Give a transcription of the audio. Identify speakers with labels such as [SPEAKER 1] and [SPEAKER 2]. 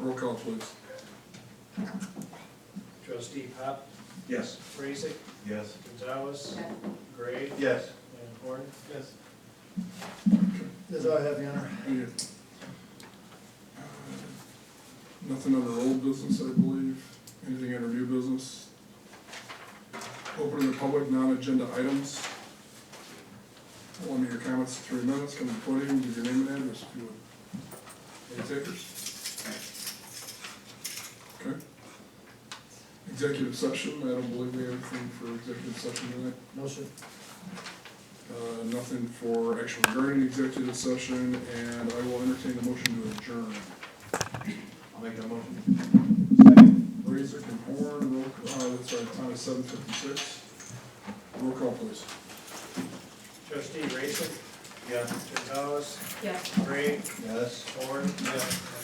[SPEAKER 1] Roll call, please.
[SPEAKER 2] Trustee Pop,
[SPEAKER 3] Yes.
[SPEAKER 2] Raisik,
[SPEAKER 3] Yes.
[SPEAKER 2] Gonzalez, Gray,
[SPEAKER 3] Yes.
[SPEAKER 2] and Horn.
[SPEAKER 3] Yes.
[SPEAKER 4] That's all I have, Your Honor.
[SPEAKER 1] Okay. Uh, Nothing under old business, I believe. Anything under new business? Opening the public non-agenda items. One of your comments, three minutes, come to the podium, give your name and address if you would. Any takers? Okay. Executive session, I don't believe we have anything for executive session tonight.
[SPEAKER 4] No, sir.
[SPEAKER 1] Uh, nothing for action regarding executive session, and I will entertain a motion to adjourn.
[SPEAKER 3] I'll make that motion.
[SPEAKER 1] Razor and Horn, roll, uh, that's right, time is seven fifty-six. Roll call, please.
[SPEAKER 2] Trustee Raisik,
[SPEAKER 3] Yes.
[SPEAKER 2] Gonzalez,
[SPEAKER 5] Yes.
[SPEAKER 2] Gray,
[SPEAKER 3] Yes.
[SPEAKER 2] Horn, and